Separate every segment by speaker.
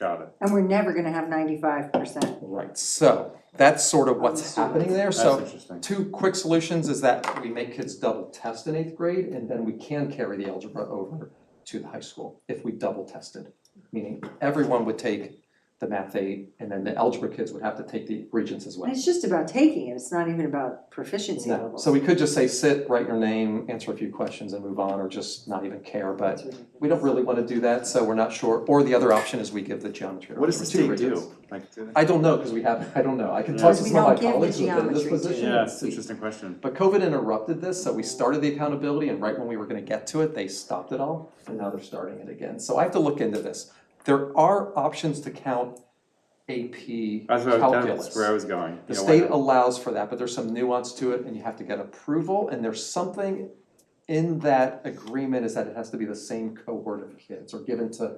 Speaker 1: Got it.
Speaker 2: And we're never gonna have ninety-five percent.
Speaker 3: Right, so that's sort of what's happening there,
Speaker 1: That's
Speaker 3: so
Speaker 1: interesting.
Speaker 3: two quick solutions is that we make kids double test in eighth grade and then we can carry the algebra over to the high school if we double tested. Meaning everyone would take the math eight and then the algebra kids would have to take the regents as well.
Speaker 2: It's just about taking it, it's not even about proficiency
Speaker 3: No,
Speaker 2: levels.
Speaker 3: so we could just say sit, write your name, answer a few questions and move on or just not even care, but
Speaker 2: That's ridiculous.
Speaker 3: we don't really wanna do that, so we're not sure. Or the other option is we give the geometry.
Speaker 4: What does the
Speaker 3: over to
Speaker 4: state
Speaker 3: regents.
Speaker 4: do? Like, do they-
Speaker 3: I don't know, cause we have, I don't know, I can
Speaker 1: Yeah.
Speaker 3: talk to
Speaker 2: Because we
Speaker 3: some of my
Speaker 2: don't give the
Speaker 3: colleagues who've been in this
Speaker 2: geometry
Speaker 3: position
Speaker 1: Yeah,
Speaker 3: and
Speaker 1: it's
Speaker 3: see.
Speaker 1: an interesting question.
Speaker 3: But COVID interrupted this, so we started the accountability and right when we were gonna get to it, they stopped it all and now they're starting it again. So I have to look into this. There are options to count AP
Speaker 1: That's where I was, that's
Speaker 3: calculus.
Speaker 1: where I was going.
Speaker 3: The
Speaker 1: You know, why
Speaker 3: state
Speaker 1: not?
Speaker 3: allows for that, but there's some nuance to it and you have to get approval and there's something in that agreement is that it has to be the same cohort of kids or given to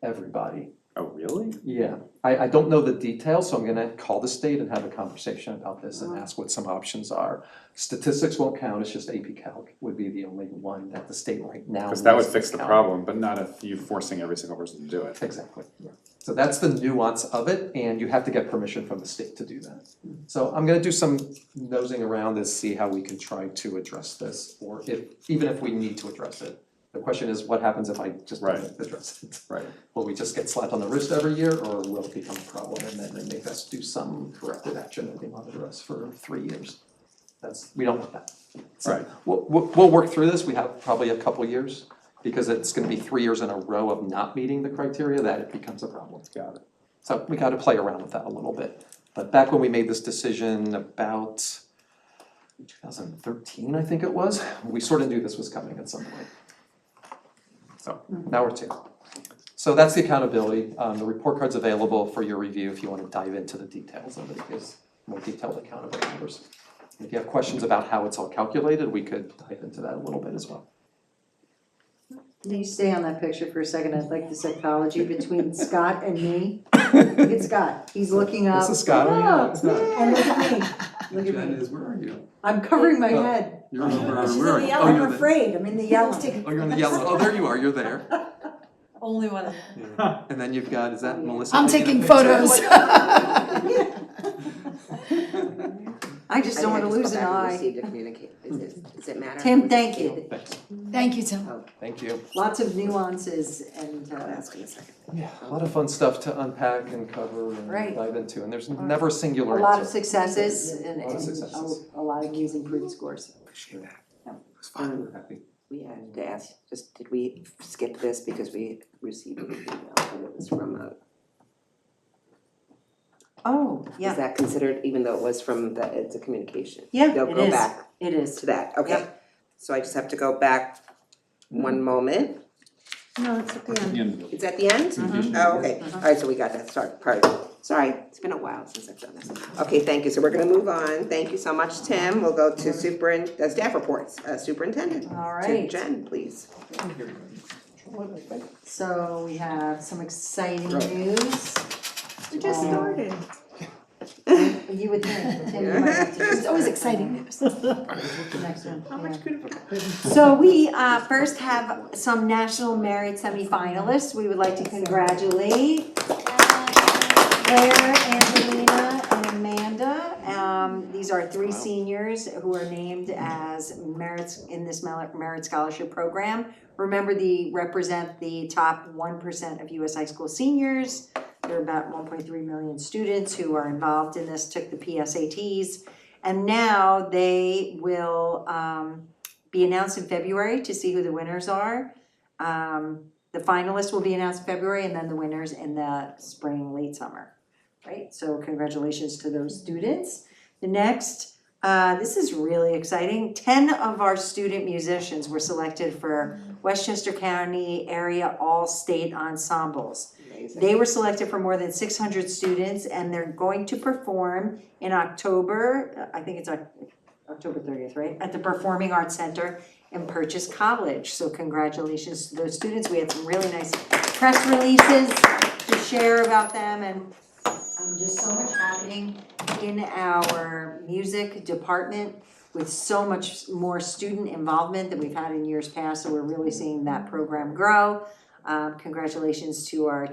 Speaker 3: everybody.
Speaker 1: Oh, really?
Speaker 3: Yeah, I, I don't know the details, so I'm gonna call the state and have a conversation about this
Speaker 1: Uh-huh.
Speaker 3: and ask what some options are. Statistics won't count, it's just AP Calc would be the only one that the state right now.
Speaker 1: Because that would
Speaker 3: lists
Speaker 1: fix the
Speaker 3: count.
Speaker 1: problem, but not if you forcing every single person to do it.
Speaker 3: Exactly, yeah. So that's the nuance of it, and you have to get permission from the state to do that.
Speaker 1: Mm-hmm.
Speaker 3: So I'm gonna do some nosing around and see how we can try to address this, or if, even if we need to address it. The question is, what happens if I just don't
Speaker 1: Right.
Speaker 3: address it?
Speaker 1: Right.
Speaker 3: Will we just get slapped on the wrist every year, or will it become a problem and then they make us do some corrective action that they monitor us for three years? That's, we don't want that. So
Speaker 1: Right.
Speaker 3: We'll, we'll, we'll work through this, we have probably a couple years, because it's gonna be three years in a row of not meeting the criteria that it becomes a problem.
Speaker 1: Got it.
Speaker 3: So we gotta play around with that a little bit. But back when we made this decision about two thousand thirteen, I think it was, we sort of knew this was coming at some point. So now we're two. So that's the accountability. Um, the report card's available for your review if you wanna dive into the details of it. It gives more detailed account of our numbers. If you have questions about how it's all calculated, we could dive into that a little bit as well.
Speaker 2: Can you stay on that picture for a second? I'd like the psychology between Scott and me. Look at Scott, he's looking up.
Speaker 3: This is Scott, are you? No,
Speaker 2: "Ah,"
Speaker 3: it's not.
Speaker 2: And look at me, look at
Speaker 4: Jen
Speaker 2: me.
Speaker 4: is, where are you?
Speaker 2: I'm covering my
Speaker 3: Oh.
Speaker 2: head.
Speaker 4: You're over, where are
Speaker 5: She's
Speaker 4: you?
Speaker 5: in the
Speaker 4: Oh,
Speaker 2: I'm
Speaker 4: you're the-
Speaker 2: afraid, I'm in the yellow.
Speaker 3: Oh, you're in the yellow. Oh, there you are, you're there.
Speaker 5: Only one.
Speaker 3: And then you've got, is that Melissa?
Speaker 6: I'm
Speaker 3: a
Speaker 6: taking
Speaker 3: picture?
Speaker 6: photos.
Speaker 2: I just don't wanna lose an eye.
Speaker 7: received a communicate, does it, does it matter?
Speaker 2: Tim, thank you.
Speaker 3: Thanks.
Speaker 6: Thank you, Tim.
Speaker 3: Thank you.
Speaker 2: Lots of nuances and,
Speaker 7: I'll
Speaker 2: uh,
Speaker 7: ask in a second.
Speaker 3: Yeah, a lot of fun stuff to unpack and cover and
Speaker 2: Right.
Speaker 3: dive into, and there's never a
Speaker 2: a
Speaker 3: singular answer.
Speaker 2: lot of successes and,
Speaker 3: Lot of
Speaker 2: and
Speaker 3: successes.
Speaker 2: a, a lot of news improved scores.
Speaker 7: Appreciate that.
Speaker 2: Yeah.
Speaker 7: It was fun. We had to ask, just, did we skip this because we received an email and it was from a,
Speaker 2: Oh,
Speaker 7: is that considered, even though it was from the, it's a communication?
Speaker 2: Yeah,
Speaker 7: They'll
Speaker 2: it
Speaker 7: go
Speaker 2: is.
Speaker 7: back
Speaker 2: It is.
Speaker 7: to that, okay? So I just have to go back
Speaker 5: Mm-hmm.
Speaker 7: one moment.
Speaker 2: No, it's at the end.
Speaker 7: It's at the end?
Speaker 5: Mm-hmm.
Speaker 7: Oh, okay, alright, so we got that, sorry, pardon. Sorry, it's been a while since I've done this. Okay, thank you, so we're gonna move on, thank you so much, Tim, we'll go to superin, uh, staff reports, uh, superintendent.
Speaker 2: All
Speaker 7: To
Speaker 2: right.
Speaker 7: Jen, please.
Speaker 2: So we have some exciting
Speaker 3: Right.
Speaker 2: news.
Speaker 5: We just
Speaker 2: Um,
Speaker 5: started.
Speaker 2: You would think, but then you might have to just.
Speaker 6: It's always exciting news.
Speaker 2: The next one, yeah.
Speaker 8: So we uh, first have some national merit semifinalists. We would like to congratulate Claire, Angelina, and Amanda. Um, These are three seniors who are named as merits in this mel- merit scholarship program. Remember, they represent the top one percent of US high school seniors. There are about one point three million students who are involved in this, took the PSATs. And now they will um, be announced in February to see who the winners are. Um, the finalists will be announced in February and then the winners in the spring, late summer, right? So congratulations to those students. The next, uh, this is really exciting, ten of our student musicians were selected for Westchester County Area All-State Ensembles. They were selected for more than six hundred students and they're going to perform in October, uh, I think it's Oc- October thirtieth, right? At the Performing Arts Center in Purchase College. So congratulations to those students. We had some really nice press releases to share about them and um, just so much happening in our music department with so much more student involvement than we've had in years past. So we're really seeing that program grow. Um, congratulations to our